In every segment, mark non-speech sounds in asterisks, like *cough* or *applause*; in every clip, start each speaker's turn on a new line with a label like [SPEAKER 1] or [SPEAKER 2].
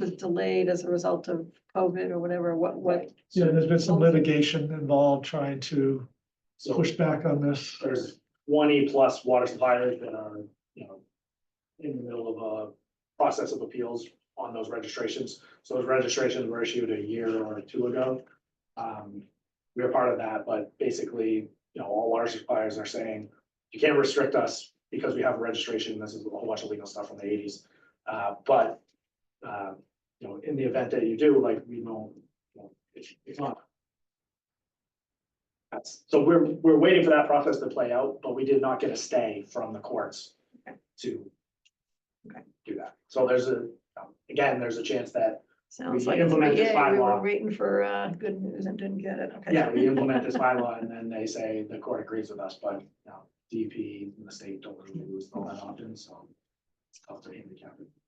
[SPEAKER 1] was delayed as a result of COVID or whatever, what, what,
[SPEAKER 2] Yeah, there's been some litigation involved trying to
[SPEAKER 3] So
[SPEAKER 2] push back on this.
[SPEAKER 3] there's twenty plus water suppliers that are, you know, in the middle of a process of appeals on those registrations. So those registrations were issued a year or two ago. Um, we were part of that, but basically, you know, all water suppliers are saying, you can't restrict us because we have a registration. This is a whole bunch of legal stuff from the eighties. Uh, but, uh, you know, in the event that you do, like, we don't, you know, it's, it's not That's, so we're, we're waiting for that process to play out, but we did not get a stay from the courts to
[SPEAKER 1] Okay.
[SPEAKER 3] do that. So there's a, um, again, there's a chance that,
[SPEAKER 1] sounds
[SPEAKER 3] We
[SPEAKER 1] like, it's-
[SPEAKER 3] implemented
[SPEAKER 1] yeah, we were
[SPEAKER 3] bylaw.
[SPEAKER 1] waiting for, uh, good news and didn't get it, okay.
[SPEAKER 3] yeah, we implement this bylaw and then they say the court agrees with us, but, you know, DEP and the state don't really lose all that often, so it's tough to handicap it.
[SPEAKER 1] *laughs*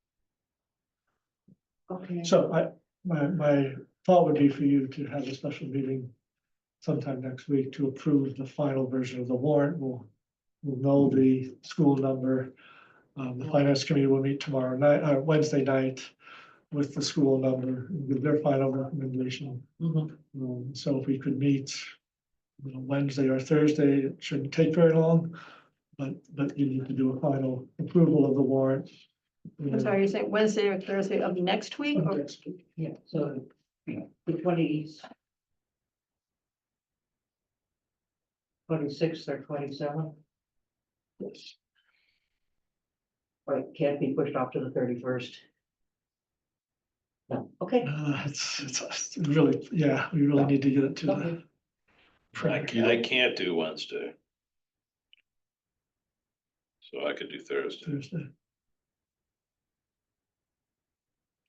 [SPEAKER 1] Okay.
[SPEAKER 2] So I, my, my thought would be for you to have a special meeting sometime next week to approve the final version of the warrant. We'll, we'll know the school number. Um, the finance committee will meet tomorrow night, uh, Wednesday night with the school number, with their final recommendation. Um, so if we could meet you know, Wednesday or Thursday, it shouldn't take very long. But, but you need to do a final approval of the warrant.
[SPEAKER 1] I'm sorry, you say Wednesday or Thursday of next week
[SPEAKER 2] Of
[SPEAKER 1] or,
[SPEAKER 2] next
[SPEAKER 4] Yeah, so the twenties. Twenty-sixth or twenty-seventh? But it can't be pushed off to the thirty-first. No, okay.
[SPEAKER 2] Uh, it's, it's- it's really, yeah, we really need to get it to the.
[SPEAKER 4] Okay.
[SPEAKER 5] I
[SPEAKER 2] practice.
[SPEAKER 5] can't, I can't do Wednesday. So I could do Thursday.
[SPEAKER 2] Thursday.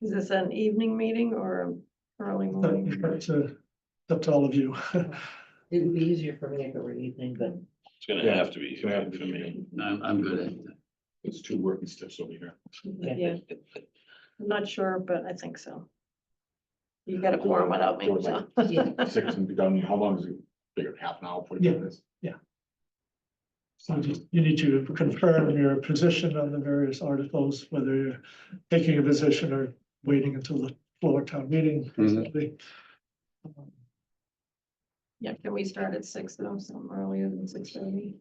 [SPEAKER 1] is this an evening meeting or
[SPEAKER 3] *laughs*
[SPEAKER 1] early
[SPEAKER 2] But it's
[SPEAKER 1] morning?
[SPEAKER 2] up to- it's up to uh, all of you. *laughs*
[SPEAKER 4] It would be easier for me if it were evening, but *laughs*
[SPEAKER 5] It's gonna
[SPEAKER 6] Yeah,
[SPEAKER 5] have to be
[SPEAKER 6] it's gonna have to
[SPEAKER 5] for
[SPEAKER 6] be
[SPEAKER 5] me.
[SPEAKER 6] I'm, I'm good at that. There's two working steps over here.
[SPEAKER 1] Yeah, I'm not sure, but I think so. You got a quorum without me, so.
[SPEAKER 4] yeah,
[SPEAKER 6] Six and be done, how long does it, take? half an hour, forty
[SPEAKER 2] Yeah.
[SPEAKER 6] minutes?
[SPEAKER 2] So just, you need to confirm your position on the various articles, whether you're taking a position or waiting until the floor town meeting.
[SPEAKER 7] Mm-hmm.
[SPEAKER 2] basically. Um,
[SPEAKER 1] Yeah, can we start at six though, some earlier than six thirty?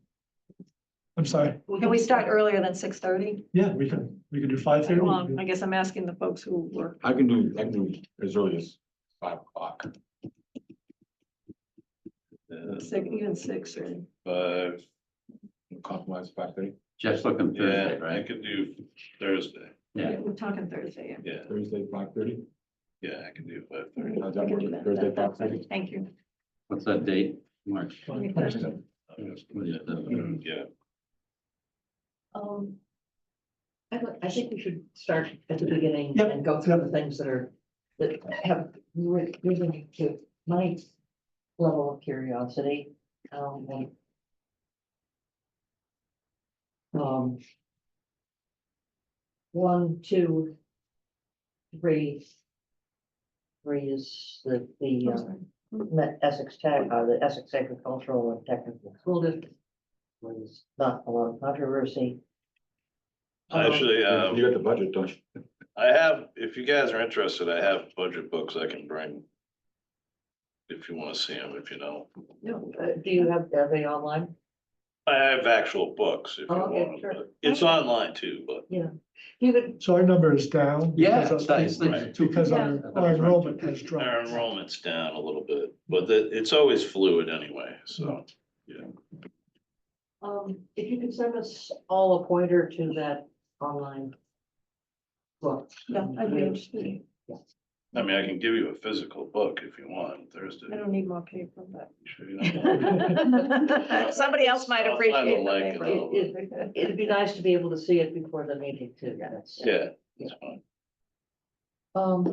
[SPEAKER 2] I'm sorry,
[SPEAKER 1] Can we start earlier than six thirty?
[SPEAKER 2] yeah, we can, we can do five thirty.
[SPEAKER 1] Well, I guess I'm asking the folks who work.
[SPEAKER 6] I can do, I can do as early as five o'clock.
[SPEAKER 5] Uh,
[SPEAKER 1] Six, even six or,
[SPEAKER 5] But,
[SPEAKER 6] Compromise five thirty,
[SPEAKER 7] Jeff's looking
[SPEAKER 5] yeah,
[SPEAKER 7] Thursday,
[SPEAKER 5] I
[SPEAKER 7] right?
[SPEAKER 5] could do Thursday.
[SPEAKER 7] Yeah.
[SPEAKER 1] we're talking Thursday. yeah.
[SPEAKER 5] Yeah,
[SPEAKER 6] Thursday, five thirty.
[SPEAKER 5] yeah, I can do five
[SPEAKER 1] All
[SPEAKER 5] thirty.
[SPEAKER 1] right, we can do that.
[SPEAKER 6] Thursday,
[SPEAKER 1] That- that's
[SPEAKER 6] 5:30.
[SPEAKER 1] fine. Thank you.
[SPEAKER 7] What's that date? March.
[SPEAKER 5] Yeah,
[SPEAKER 4] um. I, don't- I think we should start at the beginning
[SPEAKER 2] Yep.
[SPEAKER 4] and go through the things that are, that have risen to my level of curiosity. Um, and. Um. One, two, three. Three is the, the,
[SPEAKER 1] I'm
[SPEAKER 4] uh,
[SPEAKER 1] sorry.
[SPEAKER 4] Met Essex Tech, uh, the Essex Agricultural and Technical School District. Was not a lot of controversy.
[SPEAKER 5] actually, um,
[SPEAKER 6] You got the budget, don't you?
[SPEAKER 5] I have, if you guys are interested, I have budget books I can bring. If you wanna see them, if you know,
[SPEAKER 4] No, uh, do you have, are they online?
[SPEAKER 5] I have actual books if you
[SPEAKER 4] Oh, okay,
[SPEAKER 5] want,
[SPEAKER 4] sure.
[SPEAKER 5] but it's online too, but
[SPEAKER 4] You could,
[SPEAKER 2] So our number is down.
[SPEAKER 7] Yeah,
[SPEAKER 2] because
[SPEAKER 7] it's
[SPEAKER 2] of-
[SPEAKER 7] nice, it's two-
[SPEAKER 2] Because our, our enrollment has dropped.
[SPEAKER 5] our enrollment's down a little bit, but the- it's always fluid anyway, so.
[SPEAKER 4] um, if you could send us all a pointer to that online. Well,
[SPEAKER 1] Yeah, I'd be interested.
[SPEAKER 5] I mean, I can give you a physical book if you want Thursday.
[SPEAKER 1] I don't need more paper, *laughs* but.
[SPEAKER 5] Sure you don't want-
[SPEAKER 1] Somebody else might
[SPEAKER 5] I'll find a
[SPEAKER 1] appreciate
[SPEAKER 5] link and
[SPEAKER 1] the
[SPEAKER 5] I'll-
[SPEAKER 4] it,
[SPEAKER 1] paper.
[SPEAKER 4] it, would be nice to be able to see it before the meeting too. That's-
[SPEAKER 5] *laughs* Yeah, that's fine.
[SPEAKER 4] Um.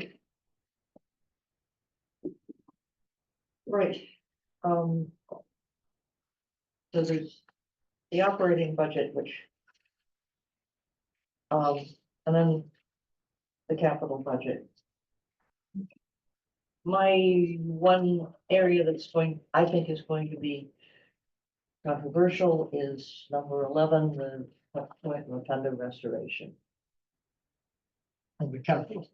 [SPEAKER 4] Right, um. So there's the operating budget, which. Um, and then the capital budget. My one area that's going, I think is going to be controversial is number eleven, the Tuck Point Rotunda restoration.
[SPEAKER 2] On the capital.